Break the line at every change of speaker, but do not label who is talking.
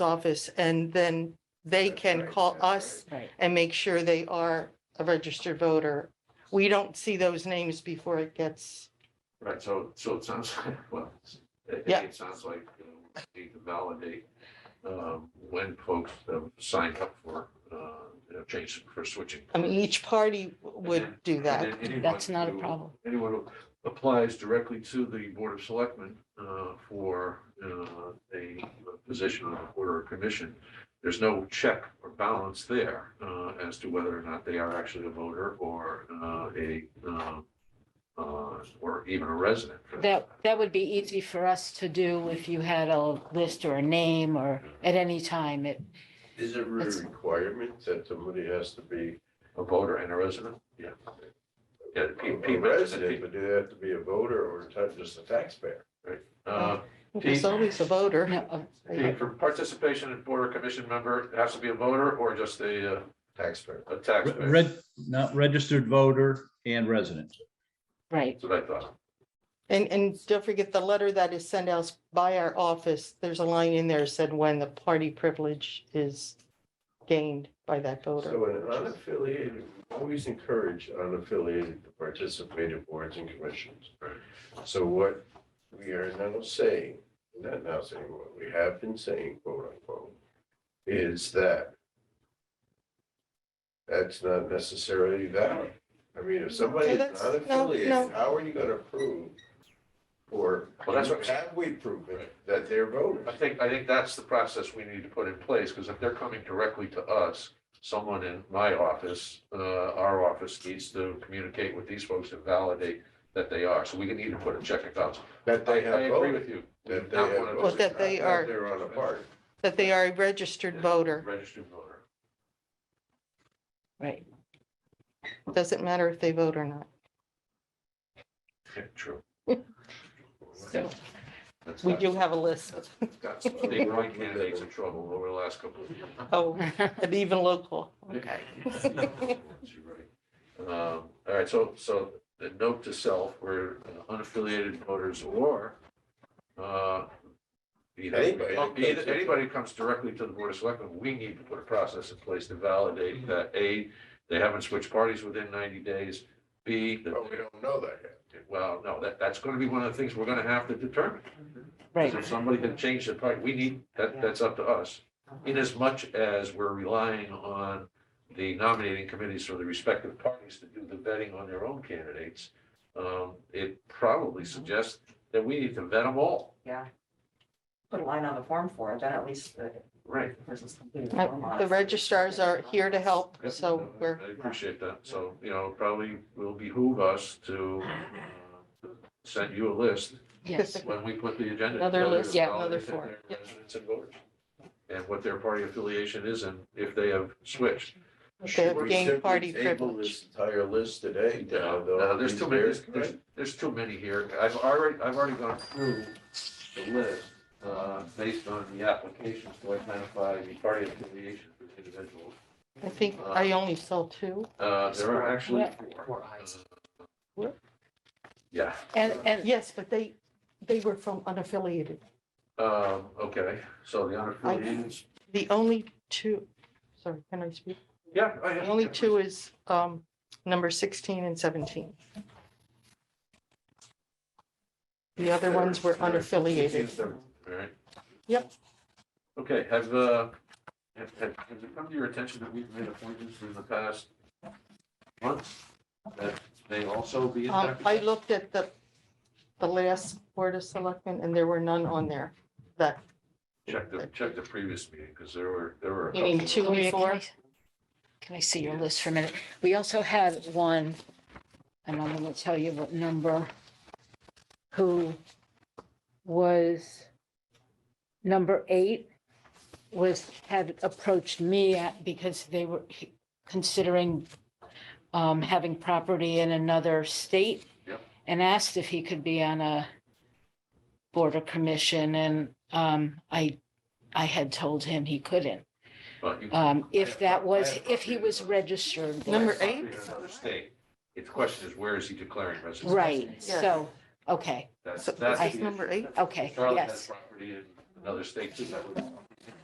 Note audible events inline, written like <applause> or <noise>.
office and then they
That's
can
right,
call
that's
us
Right.
and make sure they are a registered voter. We don't see those names before it gets,
Right, so, so it sounds, <laughs> well, it,
Yeah.
it sounds like, you know, we need to validate, um, when folks have signed up for, uh, you know, change for switching.
I mean, each party would do
And
that.
then anyone
That's not a
who-
problem.
Anyone who applies directly to the Board of Selectmen, uh, for, uh, a position on the board or a commission, there's no check or balance there, uh, as to whether or not they are actually a voter or, uh, a, uh, uh, or even a resident. for that
That, that would be easy for us to do if you had a list or a name or at any time. It,
Is it a
That's-
requirement that somebody has to be
A voter and a resident? Yeah. Yeah, the P-
a
P mentioned
resident,
it.
but do they have to be a voter or ta- just a taxpayer?
Uh,
There's always a voter.
no, oh,
P, for participation in board or commission member, it has to be a voter or just a, uh,
Taxpayer.
a taxpayer?
Red, not registered voter and resident.
right.
That's what I thought.
And, and don't forget the letter that is sent out by our office. There's a line in there said when the party privilege is gained by that voter.
So an unaffiliated, always encourage unaffiliated to participate in boards and commissions. So what we are now saying, not now saying, what we have been saying, quote unquote, is that that's not necessarily valid. I mean, if somebody
No,
is
that's- no, no.
unaffiliated, how are you gonna prove? Or
Well, that's what-
have we proven that they're voters?
I think, I think that's the process we need to put in place, because if they're coming directly to us, someone in my office, uh, our office needs to communicate with these folks and validate that they are. So we can either put a check and bounce.
That
I, I
they have
agree
voted.
with you. We
That
do
they
not
have
wanna
voted,
Well, that they
not
are-
They're on a part.
That they are a registered voter.
Registered voter.
Right. <laughs>
Doesn't matter if they vote or not.
Yeah, True.
So
That's-
We do have a list.
That's got some big right candidates in trouble over the last couple of years.
Oh, and even local. Okay.
You're right. Um, All right, so, so the note to self, we're unaffiliated voters or uh, either,
Anybody that comes
either-
in.
anybody who comes directly to the Board of Selectmen, we need to put a process in place to validate that, A, they haven't switched parties within ninety days, B, that-
But we don't know that yet.
well, no, that, that's going to be one of the things we're going to have to determine.
Right.
If somebody can change the party, we need, that, that's up to us. In as much as we're relying on the nominating committees for the respective parties to do the vetting on their own candidates, um, it probably suggests that we need to vet them all.
put a line on the form for it, then at least the
Right.
person's completed.
Uh, The registrars are here to help,
Yep.
so we're,
I appreciate that. So, you know, probably will behoove us to uh, send you a list
Yes,
when we put the agenda.
Another
together,
list, yeah,
all
another
the different
form, yeah.
Residents and voters. And what their party affiliation is and if they have switched.
they've
We
gained
simply
party
table
privilege.
this Entire list today, now,
No,
though.
uh, There's too many,
These
there's, there's too many here. I've already, I've already gone through the list, uh, based on the applications to identify the party affiliation for the individuals.
I think I only saw two.
Uh, there are actually four.
Four eyes.
Uh, Yeah,
and, and,
Yes, but they, they were from unaffiliated.
um, okay, so the unaffiliated,
The only two, sorry, can I speak?
yeah. I-
The only two is um, number 16 and 17. The other ones were unaffiliated.
Alright.
Yep.
Okay, have, uh, have, have, has it come to your attention that we've made appointments in the past months that may also be
Um,
impacted?
I looked at the, the last Board of Selectmen, and there were none on there that
Check the, check the previous meeting, because there were, there were. a
You mean
couple.
two
Gloria,
and
can
four?
I- can I see your list for a minute? We also had one, and I'm gonna tell you what number, who was number eight, was, had approached me at, because they were considering um, having property in another state.
Yep.
And asked if he could be on a border commission, and um, I, I had told him he couldn't.
But you-
Um, if that
I
was,
have
if he
copies.
was registered. there.
uh, Number eight?
In another state. Its question is, where is he declaring residence?
Right,
Yes.
so, okay,
That's,
So
that's.
this
the
is number
issue.
eight?
Okay,
Charlotte has
yes.
Property in another state too, that would.